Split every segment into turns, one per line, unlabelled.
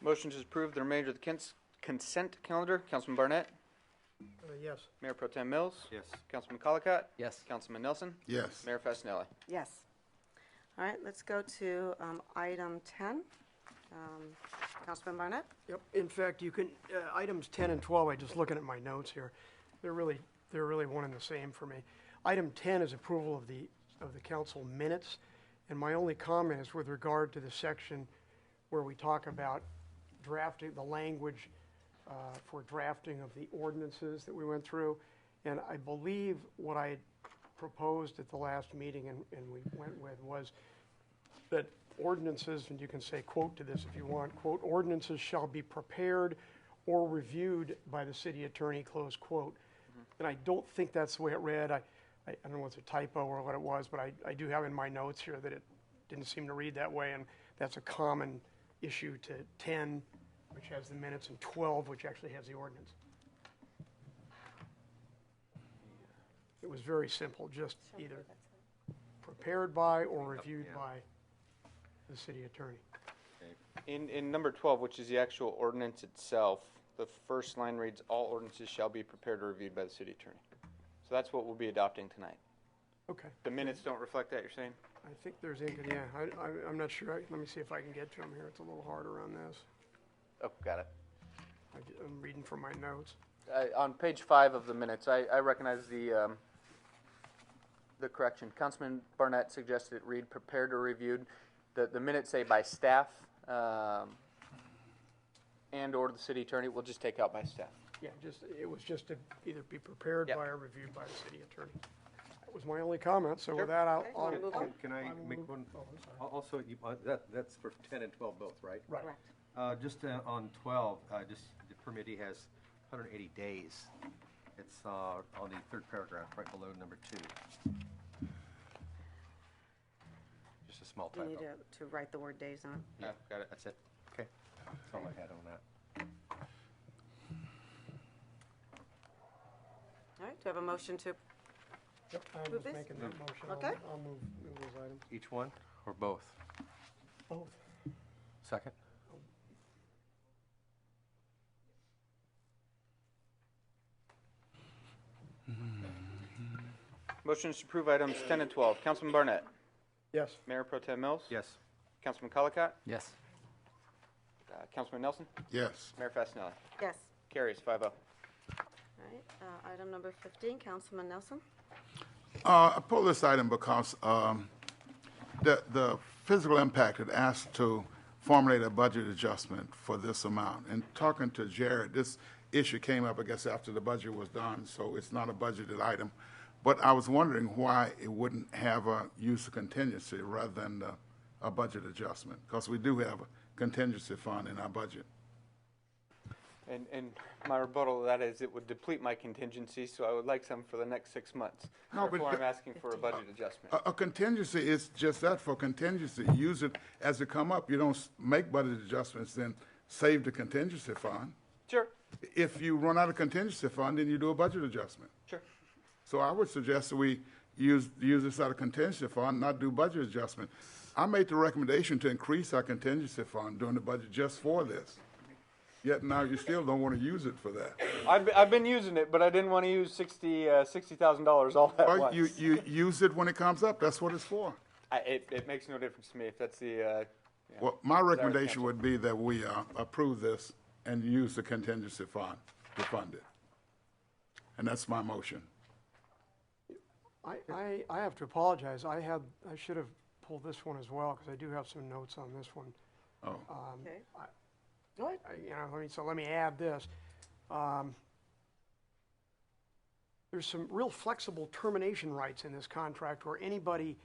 Motion to approve the remainder of the cons- consent calendar. Councilman Barnett,
Uh, yes.
Mayor Pro Tem Mills,
Yes.
Councilman Colacott,
Yes.
Councilman Nelson,
Yes.
Mayor Fasenelli.
Yes. All right, let's go to um, item 10. Um, Councilman Barnett?
Yep, in fact, you can, uh, items 10 and 12, I'm just looking at my notes here, they're really, they're really one and the same for me. Item 10 is approval of the, of the council minutes, and my only comment is with regard to the section where we talk about drafting, the language uh, for drafting of the ordinances that we went through, and I believe what I had proposed at the last meeting and, and we went with was that ordinances, and you can say quote to this if you want, quote, ordinances shall be prepared or reviewed by the city attorney, close quote. And I don't think that's the way it read. I, I I don't know if it's a typo or what it was, but I, I do have in my notes here that it didn't seem to read that way, and that's a common issue to 10, which has the minutes, and 12, which actually has the ordinance. It was very simple, just either prepared by or reviewed
yeah.
by the city attorney.
In, in number twelve, which is the actual ordinance itself, the first line reads, all ordinances shall be prepared or reviewed by the city attorney. So that's what we'll be adopting tonight.
Okay,
The minutes don't reflect that, you're saying?
I think there's, ink- yeah, I, I, I'm not sure, I- let me see if I can get to them here, it's a little harder on this.
Oh, got it.
I ju- I'm reading from my notes.
Uh, on page five of the minutes, I, I recognize the, um, the correction. Councilman Barnett suggested it read prepared or reviewed. The, the minutes say by staff, um, and/or the city attorney, we'll just take out by staff.
Yeah, just, it was just to either be prepared
Yep.
by or reviewed by the city attorney. That was my only comment, so
Sure.
with that, I'll,
Okay,
I'll.
we'll move on.
Can- Can I
I will
make
move-
one?
oh, I'm sorry.
Al- Also, you, uh, that, that's for ten and twelve both, right?
Right.
Correct.
Uh, just uh, on twelve, uh, just, the permittee has hundred and eighty days. It's, uh, on the third paragraph, right below number two. Just a small
You
typo.
need to to write the word days on it.
Yeah, got it. That's it. Okay. That's all I had on that.
All right, do I have a motion to,
Yep, I
Move
was
this?
making that motion,
Okay.
I'll, I'll move, move those items.
Each one or both?
Both.
Second?
Motion to approve items ten and twelve. Councilman Barnett,
Yes,
Mayor Pro Tem Mills.
Yes.
Councilman Colacott,
Yes.
uh, Councilman Nelson,
Yes.
Mayor Fasenelli.
yes.
Carries five oh.
All right, uh, item number 15, Councilman Nelson?
Uh, I pull this item because um, the, the physical impact had asked to formulate a budget adjustment for this amount. And talking to Jared, this issue came up, I guess, after the budget was done, so it's not a budgeted item. But I was wondering why it wouldn't have a use of contingency rather than uh, a budget adjustment, because we do have a contingency fund in our budget.
And, and my rebuttal to that is it would deplete my contingency, so I would like some for the next six months.
No, but Uh,
Therefore,
the-
I'm asking for a budget adjustment.
A, a contingency is just that for contingency. Use it as it come up. You don't s- make budget adjustments, then save the contingency fund.
Sure,
If you run out of contingency fund, then you do a budget adjustment.
sure.
So I would suggest that we use, use this out of contingency fund, not do budget adjustment. I made the recommendation to increase our contingency fund during the budget just for this. Yet now you still don't want to use it for that.
I've, be- I've been using it, but I didn't want to use sixty, uh, sixty thousand dollars all at
Well,
once.
you, you use it when it comes up. That's what it's for.
I, it, it makes no difference to me if that's the, uh, yeah.
Well, my recommendation
Counsel.
would be that we uh, approve this and use the contingency fund to fund it. And that's my motion.
I, I, I have to apologize, I had, I should have pulled this one as well, because I do have some notes on this one. Um,
Oh,
Okay.
I- you know, let me, so let me add this. Um, There's some real flexible termination rights in this contract where anybody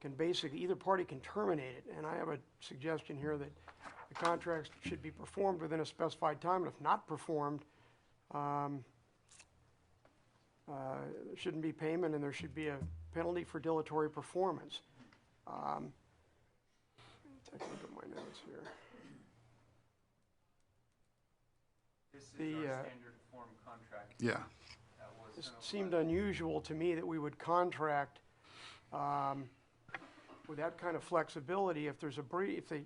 can basically, either party can terminate it. And I have a suggestion here that the contracts should be performed within a specified time, and if not performed, um, uh, there shouldn't be payment, and there should be a penalty for dilatory performance. Um, Take a look at my notes here.
This is
The, uh,
our standard form contract
yeah.
that was
It
sent over
seemed unusual to me that we would contract um, with that kind of flexibility if there's a brief, if they,